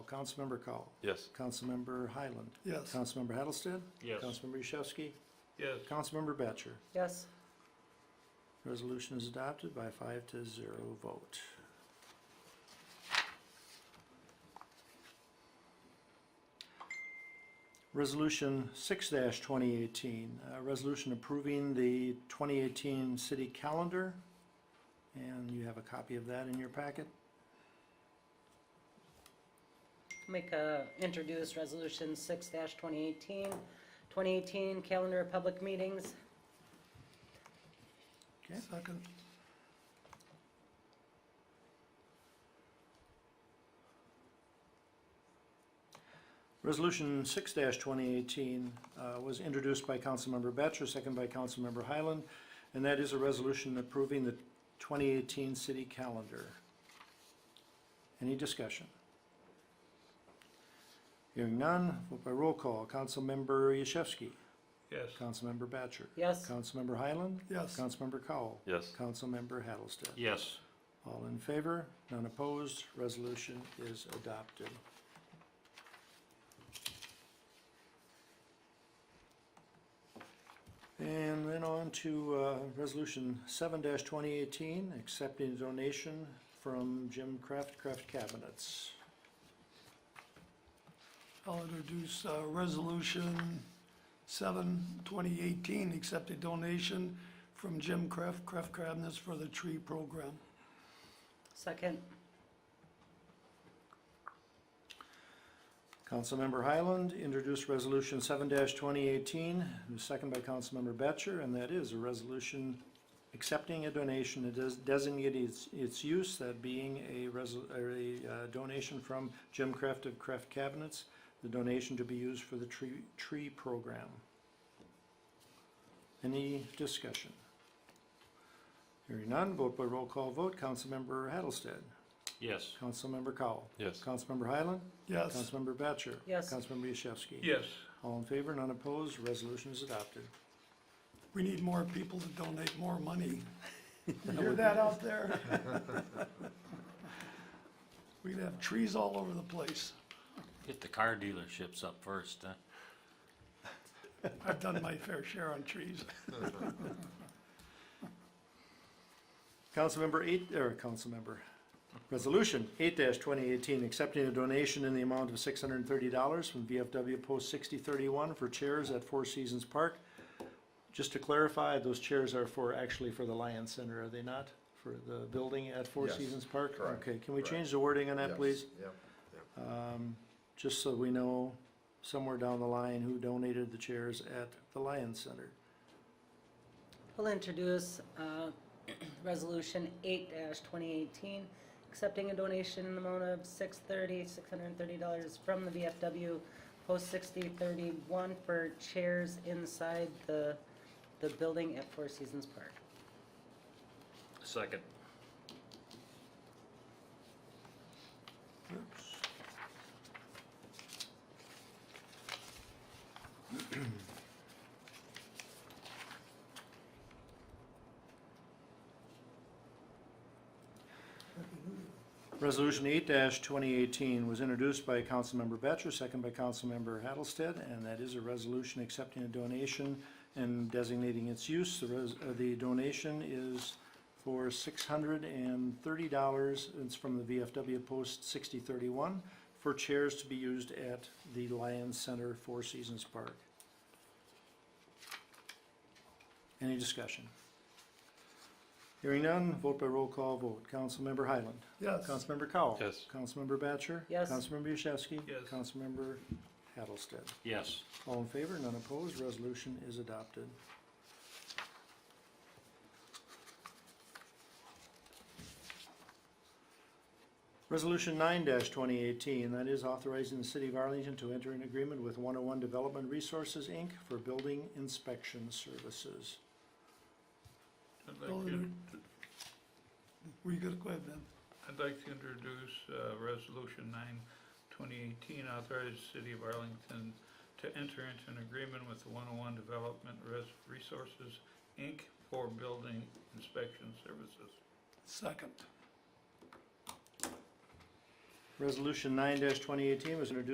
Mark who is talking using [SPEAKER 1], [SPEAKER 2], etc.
[SPEAKER 1] Councilmember Cowell.
[SPEAKER 2] Yes.
[SPEAKER 1] Councilmember Highland.
[SPEAKER 3] Yes.
[SPEAKER 1] Councilmember Hattlestead.
[SPEAKER 4] Yes.
[SPEAKER 1] Councilmember Yashewski.
[SPEAKER 4] Yes.
[SPEAKER 1] Councilmember Batcher.
[SPEAKER 5] yes,
[SPEAKER 1] Resolution is adopted by five to zero vote. Resolution six twenty eighteen, a resolution approving the twenty eighteen city calendar. And you have a copy of that in your packet.
[SPEAKER 5] make a, introduce resolution six 2018. 2018 calendar of public meetings,
[SPEAKER 1] Okay.
[SPEAKER 3] Second.
[SPEAKER 1] Resolution six twenty eighteen, uh, was introduced by Councilmember Batchor, second by Councilmember Highland. And that is a resolution approving the twenty eighteen city calendar. Any discussion? Hearing none, vote by roll call. Councilmember Yashewski.
[SPEAKER 4] Yes.
[SPEAKER 1] Councilmember Batchor.
[SPEAKER 5] yes,
[SPEAKER 1] Councilmember Highland.
[SPEAKER 3] Yes.
[SPEAKER 1] Councilmember Cowell.
[SPEAKER 2] Yes.
[SPEAKER 1] Councilmember Hattlestead.
[SPEAKER 4] Yes.
[SPEAKER 1] All in favor, none opposed, resolution is adopted. And then on to uh, Resolution 7-2018, accepting donation from Jim Kraft, Kraft Cabinets.
[SPEAKER 3] I'll introduce, uh, resolution seven, twenty eighteen, accept a donation from Jim Kraft, Kraft Cabinets for the tree program.
[SPEAKER 5] second,
[SPEAKER 1] Councilmember Highland introduced Resolution 7-2018, and second by Councilmember Batchor, and that is a resolution accepting a donation that does designate its, its use, that being a resol, or a uh, donation from Jim Kraft of Kraft Cabinets, the donation to be used for the tree, tree program. Any discussion? Hearing none, vote by roll call vote, Councilmember Hattlestead,
[SPEAKER 4] Yes.
[SPEAKER 1] Councilmember Cowell,
[SPEAKER 2] Yes.
[SPEAKER 1] Councilmember Highland,
[SPEAKER 3] Yes,
[SPEAKER 1] Councilmember Batchor.
[SPEAKER 5] Yes.
[SPEAKER 1] Councilmember Yashewski.
[SPEAKER 4] Yes.
[SPEAKER 1] All in favor, none opposed, resolution is adopted.
[SPEAKER 3] we need more people to donate more money. You Hear that out there? We'd have trees all over the place.
[SPEAKER 6] Get the car dealerships up first, huh?
[SPEAKER 3] I've done my fair share on trees.
[SPEAKER 1] Councilmember eight, or Councilmember, Resolution eight twenty eighteen, accepting a donation in the amount of six hundred and thirty dollars from VFW Post sixty thirty-one for chairs at Four Seasons Park. Just to clarify, those chairs are for, actually for the Lion Center, are they not? For the building at Four
[SPEAKER 7] Yes,
[SPEAKER 1] Seasons Park?
[SPEAKER 7] correct,
[SPEAKER 1] Okay, can we
[SPEAKER 7] correct.
[SPEAKER 1] change the wording on that,
[SPEAKER 7] Yes,
[SPEAKER 1] please?
[SPEAKER 7] Yep,
[SPEAKER 1] um, just so we know somewhere down the line who donated the chairs at the Lions Center.
[SPEAKER 5] I'll introduce, uh, resolution eight twenty eighteen, accepting a donation in the amount of six thirty, six hundred and thirty dollars from the VFW post sixty thirty-one for chairs inside the, the building at Four Seasons Park.
[SPEAKER 4] Second.
[SPEAKER 1] Resolution eight twenty eighteen was introduced by Councilmember Batchor, second by Councilmember Hattlestead, and that is a resolution accepting a donation and designating its use. The res, uh, the donation is for six hundred and thirty dollars. It's from the VFW Post sixty thirty-one for chairs to be used at the Lions Center, Four Seasons Park. Any discussion? Hearing none, vote by roll call vote. Councilmember Highland.
[SPEAKER 3] Yes.
[SPEAKER 1] Councilmember Cowell.
[SPEAKER 2] Yes.
[SPEAKER 1] Councilmember Batcher.
[SPEAKER 5] Yes.
[SPEAKER 1] Councilmember Yashewski.
[SPEAKER 4] Yes.
[SPEAKER 1] Councilmember Hattlestead.
[SPEAKER 4] Yes.
[SPEAKER 1] All in favor, none opposed, resolution is adopted. Resolution nine twenty eighteen, that is authorizing the city of Arlington to enter an agreement with one oh one Development Resources, Inc. for building inspection services.
[SPEAKER 4] I'd like to,
[SPEAKER 3] We could go ahead then.
[SPEAKER 4] I'd like to introduce, uh, resolution nine, twenty eighteen, authorize the city of Arlington to enter into an agreement with the one oh one Development Res- Resources, Inc. for building inspection services.
[SPEAKER 3] Second.
[SPEAKER 1] Resolution nine twenty eighteen was introduced